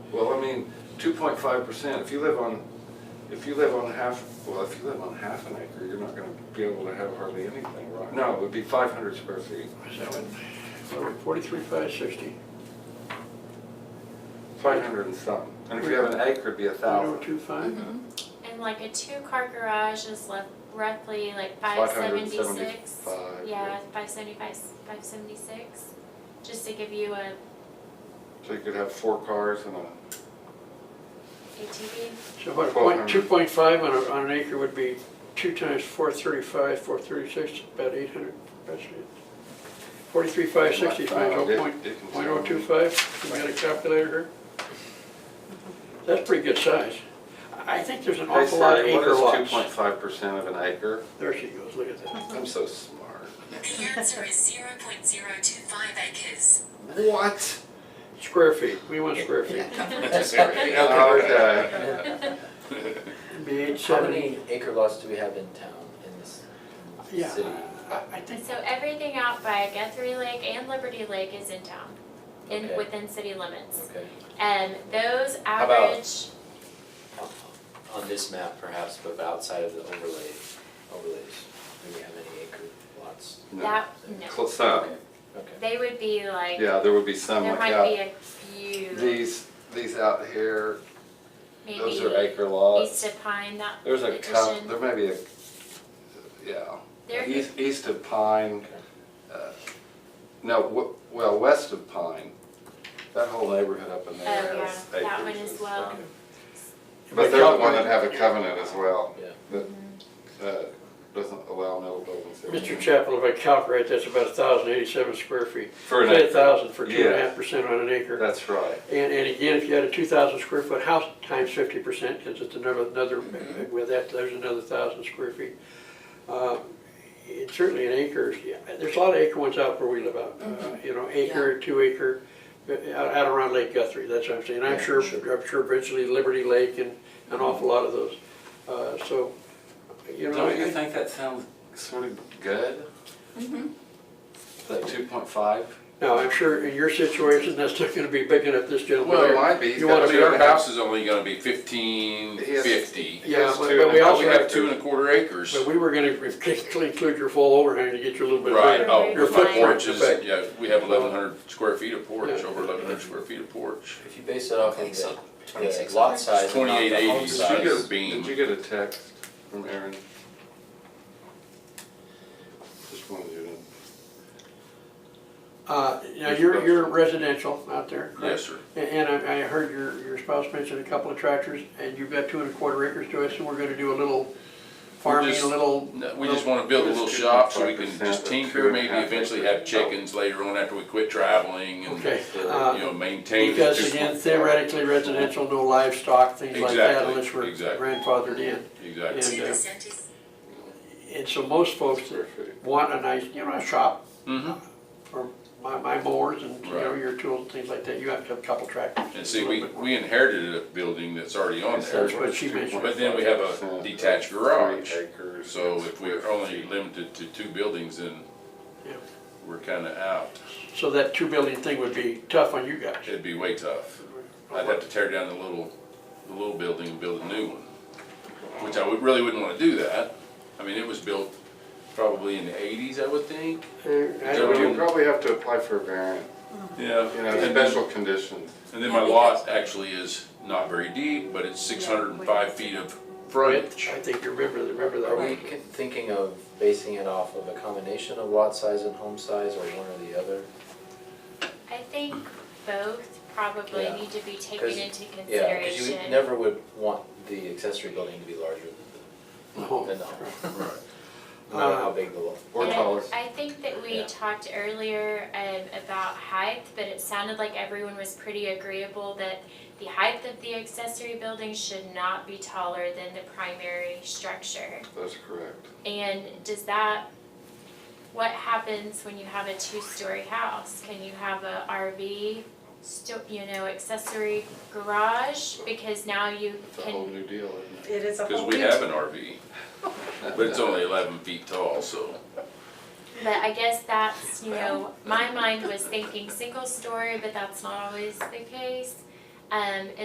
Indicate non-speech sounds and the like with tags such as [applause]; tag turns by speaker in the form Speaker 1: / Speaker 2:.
Speaker 1: two point five percent, if you live on, if you live on half, well, if you live on half an acre, you're not gonna be able to have hardly anything, right? No, it would be five hundred square feet.
Speaker 2: Is that what, forty-three, five sixty?
Speaker 1: Five hundred and something. And if you have an acre, it'd be a
Speaker 2: One oh
Speaker 1: thousand.
Speaker 2: two five?
Speaker 3: And like a two-car garage is left roughly like five seventy-six.
Speaker 1: 575,
Speaker 3: Yeah,
Speaker 1: yeah.
Speaker 3: five seventy-five, five seventy-six, just to give you a
Speaker 1: So you could have four cars and a,
Speaker 3: ATV.
Speaker 2: So what,
Speaker 1: Twelve
Speaker 2: point,
Speaker 1: hundred.
Speaker 2: two point five on a, on an acre would be two times four thirty-five, four thirty-six, about eight hundred, that's it. Forty-three, five sixty times
Speaker 1: Wow,
Speaker 2: oh
Speaker 1: Dick-
Speaker 2: point,
Speaker 1: Dick can
Speaker 2: point
Speaker 1: tell
Speaker 2: oh two five, you got a calculator here? That's pretty good size. I think there's an
Speaker 1: hey,
Speaker 2: awful lot of
Speaker 1: Sally,
Speaker 2: acre
Speaker 1: what is two point
Speaker 2: lots.
Speaker 1: five percent of an acre?
Speaker 2: There she goes, look at that.
Speaker 1: I'm so smart.
Speaker 4: The answer is 0.025 acres.
Speaker 1: What?
Speaker 2: Square feet, we want square feet.
Speaker 3: [laughs]
Speaker 5: uh,
Speaker 1: Okay.
Speaker 6: uh,
Speaker 2: It'd Be eight
Speaker 6: How
Speaker 2: seventy.
Speaker 6: many acre lots do we have in town, in this
Speaker 2: Yeah,
Speaker 6: city?
Speaker 2: I- I think,
Speaker 3: [laughs] So everything out by Guthrie Lake and Liberty Lake is in town, in,
Speaker 6: Okay.
Speaker 3: within city limits.
Speaker 6: Okay,
Speaker 3: And those
Speaker 6: about-
Speaker 3: average,
Speaker 6: on this map perhaps, but outside of the overlay, overlays, do we have any acre lots?
Speaker 1: No.
Speaker 3: that, no,
Speaker 1: Cl- Some,
Speaker 6: Okay.
Speaker 3: they would be like,
Speaker 1: yeah, there would be some
Speaker 3: there
Speaker 1: like
Speaker 3: might
Speaker 1: that.
Speaker 3: be a few,
Speaker 1: These, these out here, those are
Speaker 3: maybe
Speaker 1: acre
Speaker 3: east
Speaker 1: lots.
Speaker 3: of Pine, that
Speaker 1: There's a couple,
Speaker 3: addition.
Speaker 1: there may be a, yeah.
Speaker 3: There-
Speaker 1: East, east of Pine,
Speaker 6: Okay.
Speaker 1: uh, no, w- well, west of Pine, that whole neighborhood up in
Speaker 3: Oh,
Speaker 1: there
Speaker 3: yeah,
Speaker 1: has acres.
Speaker 3: that one as well.
Speaker 6: okay.
Speaker 1: But they're the one that have a covenant as well,
Speaker 6: Yeah.
Speaker 1: that, uh doesn't allow no buildings. there.
Speaker 2: Mr. Chapel, if I calculate, that's about thousand eighty-seven square feet.
Speaker 1: For an
Speaker 2: Say
Speaker 1: acre.
Speaker 2: thousand for two and a
Speaker 1: Yeah.
Speaker 2: half percent on an acre.
Speaker 1: That's right.
Speaker 2: And, and again, if you had a two thousand square foot house times fifty percent, because it's another, another, with that, there's another thousand square feet. Uh, It's certainly an acre, yeah, there's a lot of acre ones out where we live out, uh,
Speaker 6: Mm-hmm.
Speaker 2: you know, acre, two acre, uh, out, out around Lake Guthrie, that's what I'm saying. I'm
Speaker 6: Yeah,
Speaker 2: sure,
Speaker 6: sure.
Speaker 2: I'm sure eventually Liberty Lake and an awful lot of those. Uh, So, you know.
Speaker 1: Don't you
Speaker 2: I-
Speaker 1: think that sounds sort of good? That two point five?
Speaker 2: Now, I'm sure in your situation, that's not gonna be big enough, this gentleman.
Speaker 1: Well, it
Speaker 2: here.
Speaker 1: might be. He's
Speaker 2: You
Speaker 1: got
Speaker 2: wanna
Speaker 1: two
Speaker 2: be
Speaker 1: and a
Speaker 5: Your
Speaker 2: around,
Speaker 5: house is only gonna be fifteen
Speaker 1: Yes.
Speaker 5: fifty.
Speaker 2: yeah,
Speaker 1: Yes,
Speaker 2: but
Speaker 1: two
Speaker 2: but
Speaker 1: and
Speaker 2: we
Speaker 1: a half.
Speaker 2: also
Speaker 5: We have
Speaker 2: have,
Speaker 5: two and a quarter acres.
Speaker 2: but we were gonna [laughs] include your full overhang to get you a little bit
Speaker 5: Right,
Speaker 2: bigger.
Speaker 5: oh,
Speaker 3: Your
Speaker 5: with my
Speaker 3: footprint,
Speaker 5: porch is,
Speaker 2: okay.
Speaker 5: yeah, we have eleven hundred square feet of porch,
Speaker 2: Yeah.
Speaker 5: over eleven hundred square feet of porch.
Speaker 6: If you base it off of
Speaker 4: Okay, so
Speaker 6: the,
Speaker 4: 26
Speaker 6: the lot
Speaker 4: acres.
Speaker 6: size and not the
Speaker 5: 2880
Speaker 6: home
Speaker 1: Did
Speaker 5: is
Speaker 1: you get,
Speaker 6: size,
Speaker 1: a-
Speaker 5: beam.
Speaker 1: did you get a text from Aaron? Just wanted you to.
Speaker 2: Uh, now, you're, you're residential out there,
Speaker 5: Yes,
Speaker 2: correct?
Speaker 5: sir.
Speaker 2: And- And I, I heard your, your spouse mention a couple of tractors, and you've got two and a quarter acres to us, and we're gonna do a little farming, a
Speaker 5: just-
Speaker 2: little,
Speaker 5: No, We just wanna build a little shop so we can just
Speaker 1: 25%
Speaker 5: tinker,
Speaker 1: of two and a
Speaker 5: maybe
Speaker 1: half
Speaker 5: eventually
Speaker 1: acres.
Speaker 5: have chickens later on after we quit traveling and,
Speaker 2: okay.
Speaker 5: you
Speaker 2: uh,
Speaker 5: know, maintain.
Speaker 2: Because
Speaker 5: just-
Speaker 2: again, theoretically residential, no livestock, things like that,
Speaker 5: Exactly,
Speaker 2: unless we're
Speaker 5: exactly.
Speaker 2: grandfathered in.
Speaker 5: Exactly.
Speaker 2: And, uh,
Speaker 4: 2% is
Speaker 2: And so most folks
Speaker 1: Square feet.
Speaker 2: want a nice, you know, a shop
Speaker 5: hmm
Speaker 2: for my, my mowers and, you know,
Speaker 5: Right.
Speaker 2: your tools and things like that. You have to have a couple tractors.
Speaker 5: and see, we, we inherited a building that's already on there.
Speaker 2: That's what she mentioned.
Speaker 5: But then we have a detached garage,
Speaker 1: Three acres.
Speaker 5: so if we're only limited to two buildings, then
Speaker 2: Yeah.
Speaker 5: we're kinda out.
Speaker 2: So that two building thing would be tough on you guys.
Speaker 5: It'd be way tough. I'd have to tear down the little, the little building and build a new one, which I would, really wouldn't wanna do that. I mean, it was built probably in the eighties, I would think.
Speaker 2: Uh, I
Speaker 1: So
Speaker 2: don't
Speaker 1: you
Speaker 2: know.
Speaker 1: probably have to apply for a variant,
Speaker 5: Yeah.
Speaker 1: you know, special conditions.
Speaker 5: And then my lot actually is not very deep, but it's six hundred and five feet of frontage.
Speaker 2: I think you remember, remember
Speaker 6: are we
Speaker 2: that.
Speaker 6: c- thinking of basing it off of a combination of lot size and home size, or one or the other?
Speaker 3: I think both probably
Speaker 6: Yeah.
Speaker 3: need to be taken
Speaker 6: 'Cause-
Speaker 3: into
Speaker 6: Yeah, because you
Speaker 3: consideration.
Speaker 6: never would want the accessory building to be larger than the,
Speaker 2: No.
Speaker 6: than the home,
Speaker 5: Right.
Speaker 6: no matter how big the lot.
Speaker 1: Or
Speaker 3: And I-
Speaker 1: taller.
Speaker 3: I think that we
Speaker 6: Yeah.
Speaker 3: talked earlier um, about height, but it sounded like everyone was pretty agreeable that the height of the accessory building should not be taller than the primary structure.
Speaker 1: That's correct.
Speaker 3: And does that, what happens when you have a two-story house? Can you have a RV, sto- you know, accessory garage? Because now you
Speaker 1: It's a whole
Speaker 3: can,
Speaker 1: new deal, isn't it?
Speaker 7: It is a
Speaker 5: Cause
Speaker 7: whole.
Speaker 5: we have an RV, but it's only eleven feet tall, so.
Speaker 3: but I guess that's, you know, my mind was thinking single-story, but that's not always the case. Um,